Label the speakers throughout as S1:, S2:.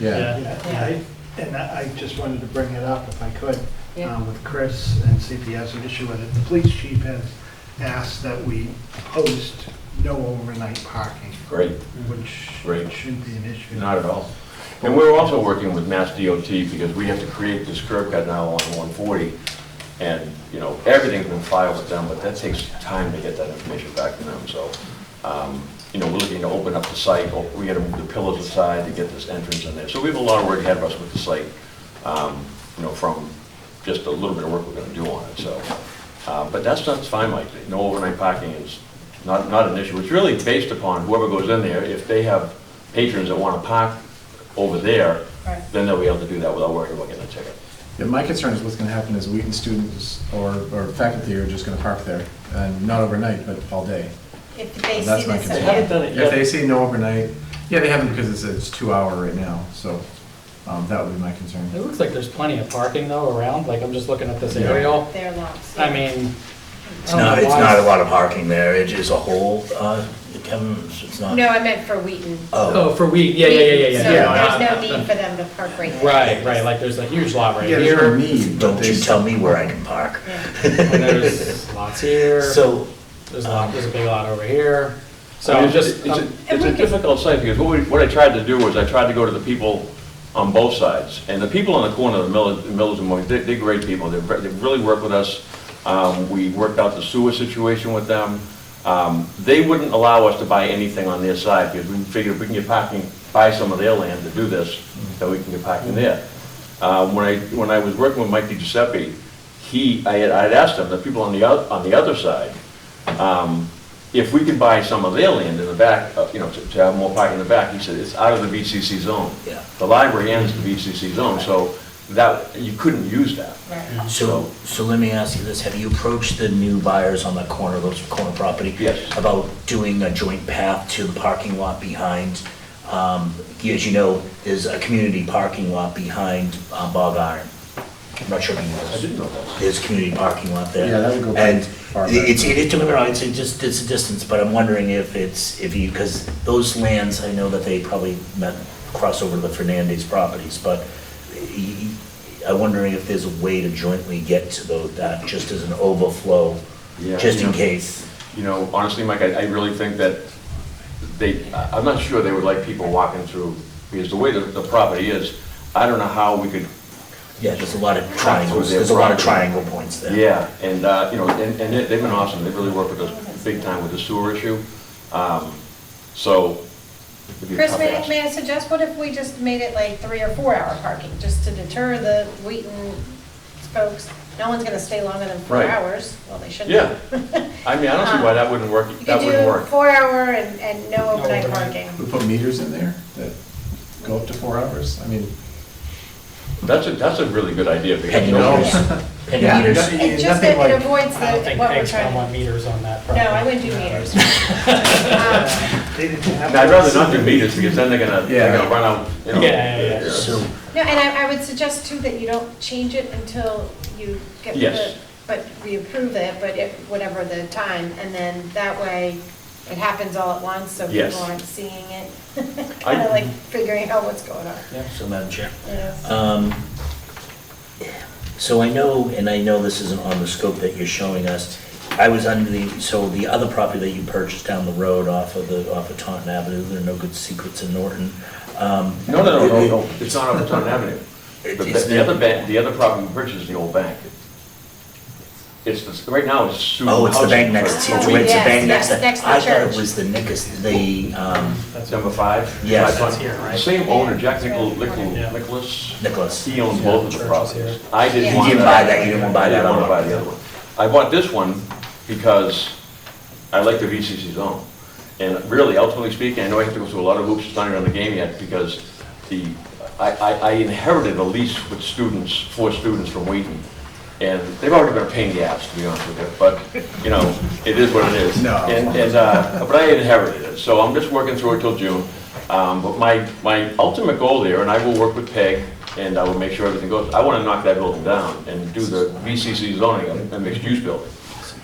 S1: Yeah.
S2: Yeah, I- And I I just wanted to bring it up if I could,
S3: Yeah.
S2: um, with Chris and see if he has an issue with it. The police chief has asked that we host no overnight parking,
S4: Great,
S2: which
S4: Right.
S2: shouldn't be an issue.
S4: not at all. And we're also working with Mass DOT because we have to create this curb cut now on 140. And, you know, everything's been filed with them, but that takes time to get that information back to them. So, um, you know, we're looking to open up the site. or We gotta move the pillars aside to get this entrance in there. So we have a lot of work ahead of us with the site, um, you know, from just a little bit of work we're gonna do on it, so. uh, But that's, that's fine, Mike. No overnight parking is not, not an issue. It's really based upon whoever goes in there. If they have patrons that wanna park over there,
S3: Right.
S4: then they'll be able to do that without worrying about getting a ticket.
S1: Yeah, my concern is what's gonna happen is Wheaton students or, or faculty are just gonna park there, and not overnight, but all day.
S3: If they
S1: That's
S3: see
S1: my
S3: this,
S1: concern.
S3: yeah.
S1: They haven't
S4: done
S1: If they say no overnight, yeah, they haven't because it's, it's two hour right now, so, um, that would be my
S5: It
S1: concern.
S5: looks like there's plenty of parking though around, like I'm just looking at this aerial.
S3: they're lots.
S5: I mean.
S6: It's not, it's not a lot of parking there, it is a whole, uh, Kevin, it's not.
S3: No, I meant for Wheaton.
S6: Oh,
S5: Oh, for we, yeah, yeah, yeah, yeah, yeah.
S3: So
S5: no,
S3: there's no
S5: not-
S3: need for them to park right there.
S5: Right, right, like there's a huge lot right
S1: Yeah, there's no
S5: here,
S1: need, but
S6: don't
S1: they,
S6: you tell me where I can park.
S3: Yeah.
S5: and there's lots here,
S6: So,
S5: there's a lot, there's a big lot over here.
S4: I
S5: So
S4: mean,
S5: just,
S4: It's
S5: um,
S4: a- it's a difficult site, because what we, what I tried to do was I tried to go to the people on both sides, and the people on the corner of the Millers, Millers and Moyes, they're, they're great people, they, they really work with us. Um, we worked out the sewer situation with them. Um, they wouldn't allow us to buy anything on their side, because we figured if we can get parking, buy some of their land to do this, then we can get parking there. Uh, when I, when I was working with Mike DiGiuseppe, he, I had, I'd asked him, the people on the, oth- on the other side, um, if we can buy some of their land in the back, uh, you know, to to have more parking in the back, he said, it's out of the VCC zone.
S6: Yeah.
S4: The library ends the VCC zone, so that, you couldn't use that.
S3: Right.
S6: so, so let me ask you this, have you approached the new buyers on the corner, those corner property?
S4: Yes.
S6: About doing a joint path to the parking lot behind, um, as you know, there's a community parking lot behind uh, Bog Iron. I'm not sure if you know
S4: I
S6: this.
S4: didn't know that.
S6: There's community parking lot there.
S1: Yeah, that would go pretty
S6: And
S1: far back.
S6: it's, it, don't get me wrong, it's a just, it's a distance, but I'm wondering if it's, if you, because those lands, I know that they probably met, cross over to the Fernandez properties, but y- y- I'm wondering if there's a way to jointly get to those, that, just as an overflow,
S4: Yeah,
S6: just in
S4: yeah.
S6: case.
S4: You know, honestly, Mike, I, I really think that they, I- I'm not sure they would like people walking through, because the way that the property is, I don't know how we could
S6: Yeah, there's a lot of triangles,
S4: their
S6: there's a lot of
S4: property.
S6: triangle points there.
S4: Yeah, and, uh, you know, and and they- they've been awesome, they really worked with us big time with the sewer issue. Um, So. it'd be a
S3: Chris,
S4: tough
S3: may,
S4: ask.
S3: may I suggest, what if we just made it like three or four hour parking, just to deter the Wheaton folks? No one's gonna stay longer than four
S4: Right.
S3: hours, well, they shouldn't.
S4: Yeah. I mean, I don't see why that wouldn't work,
S3: You
S4: that
S3: could
S4: wouldn't
S3: do
S4: work.
S3: four hour and, and no overnight
S5: overnight.
S3: parking.
S1: we put meters in there that go up to four hours, I mean,
S4: That's a, that's a really good idea, because
S6: Penny
S4: no
S1: No.
S6: meters, penny
S1: Yeah.
S6: meters.
S1: Yeah.
S3: It just,
S1: Nothing
S3: it
S1: like-
S3: it avoids
S5: I don't
S3: the,
S5: think
S3: what we're
S5: Peg's gonna
S3: trying
S5: want
S3: to.
S5: meters on that
S3: No,
S5: property.
S3: I wouldn't do meters. Um,
S2: They didn't have
S4: I'd rather not do meters, because then they're gonna, they're
S1: Yeah.
S4: gonna run out, you know.
S5: Yeah, yeah, yeah.
S6: So,
S3: No, and I, I would suggest too that you don't change it until you get
S4: Yes.
S3: the, but we approve it, but it, whatever the time, and then that way it happens all at once, so
S4: Yes.
S3: people aren't seeing it. Kind of like figuring out what's going on,
S6: so Madam Chair.
S3: you know?
S6: Um, So I know, and I know this isn't on the scope that you're showing us, I was under the, so the other property that you purchased down the road off of the, off of Taunton Avenue, there are no good secrets in Norton. um,
S4: No, no, no, no, no, it's not over Taunton Avenue.
S6: It-
S4: The,
S6: it's
S4: the other bank, the other property we purchased is the old bank. It's, the- right now, it's. Sue
S6: Oh, it's the bank
S4: Housing.
S6: next to, it's
S3: Oh,
S6: it's the
S3: yes,
S6: bank next
S3: yes, next to
S6: to, I thought
S3: church.
S6: it was the Nickels, the, um,
S4: That's number five?
S6: Yes.
S4: Five
S5: That's
S4: Pond.
S5: here, right?
S4: Same owner, Jack Nichol-
S5: Yeah.
S4: Nichol- Nicholas.
S6: Nicholas.
S4: He owns both of the
S5: Churches
S4: properties.
S5: here.
S4: I didn't
S3: You
S4: want that.
S6: didn't buy that, you didn't buy
S4: I
S6: that
S4: wanna
S6: other
S4: buy
S6: one.
S4: the other one. I bought this one because I like the VCC zone. And really, ultimately speaking, I know I have to go through a lot of hoops, it's not even on the game yet, because the, I, I I inherited a lease with students, four students from Wheaton, and they've already been a pain in the ass, to be honest with you, but, you know, it is what it is.
S1: No.
S4: And, and, uh, but I inherited it, so I'm just working through it till June. Um, But my, my ultimate goal there, and I will work with Peg, and I will make sure everything goes, I want to knock that building down and do the VCC zoning, a mixed-use building.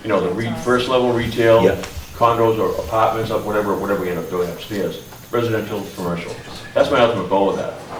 S4: You know, the re- first level retail,
S6: Yeah.
S4: condos or apartments, or whatever, whatever we end up doing upstairs, residential, commercial. That's my ultimate goal with that.